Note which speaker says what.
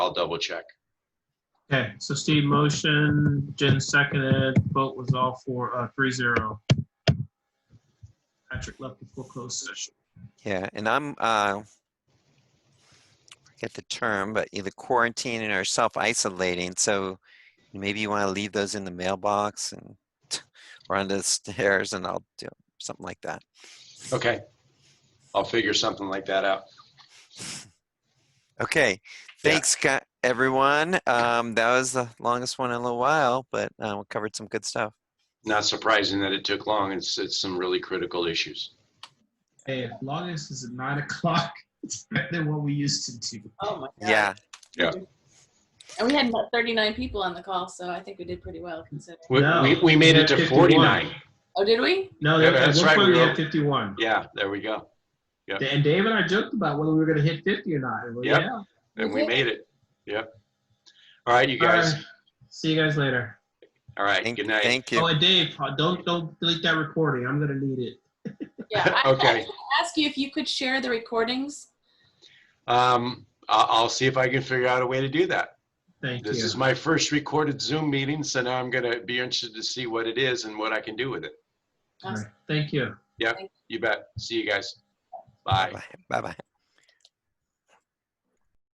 Speaker 1: I'll double check.
Speaker 2: Okay, so Steve motion, Jen seconded, vote was all for, uh, three zero. Patrick left before closed session.
Speaker 3: Yeah, and I'm, uh, forget the term, but either quarantining or self-isolating, so maybe you want to leave those in the mailbox and, or under the stairs, and I'll do something like that.
Speaker 1: Okay. I'll figure something like that out.
Speaker 3: Okay,
Speaker 1: Yeah.
Speaker 3: thanks, gu- everyone. Um, that was the longest one in a little while, but, uh we covered some good stuff.
Speaker 1: Not surprising that it took long. It's, it's some really critical issues.
Speaker 2: Hey, as long as it's at nine o'clock, it's better than what we used to do.
Speaker 4: Oh my god.
Speaker 3: Yeah,
Speaker 4: And we had about 39 people on the call, so I think we did pretty well considering.
Speaker 1: We,
Speaker 2: No.
Speaker 1: we, we made it to
Speaker 2: Yeah, 51.
Speaker 1: 49.
Speaker 4: Oh, did we?
Speaker 2: No,
Speaker 1: Yeah,
Speaker 2: that- at
Speaker 1: that's
Speaker 2: one
Speaker 1: right,
Speaker 2: point
Speaker 1: we
Speaker 2: we
Speaker 1: were-
Speaker 2: had fifty-one.
Speaker 1: Yeah, there we go. yeah.
Speaker 2: And Dave and I joked about whether we were gonna hit fifty or not. and we're,
Speaker 1: Yep.
Speaker 2: Yeah. All
Speaker 1: And we
Speaker 4: Okay.
Speaker 1: made it. Yep. All right, you guys.
Speaker 2: right, See you guys later.
Speaker 1: All right.
Speaker 3: thank,
Speaker 1: Good night.
Speaker 3: thank
Speaker 2: Oh,
Speaker 3: you.
Speaker 2: and Dave, uh, don't, don't delete that recording. I'm gonna need it.
Speaker 4: Yeah. I- I was
Speaker 1: Okay.
Speaker 4: gonna Ask you if you could share the recordings.
Speaker 1: Um, I'll, I'll see if I can figure out a way to do that.
Speaker 2: Thank
Speaker 1: This
Speaker 2: you.
Speaker 1: is my first recorded Zoom meeting, so now I'm going to be interested to see what it is and what I can do with it.
Speaker 2: All right, Thank you.
Speaker 1: You bet. See you guys. Bye.
Speaker 3: Bye- Bye-bye.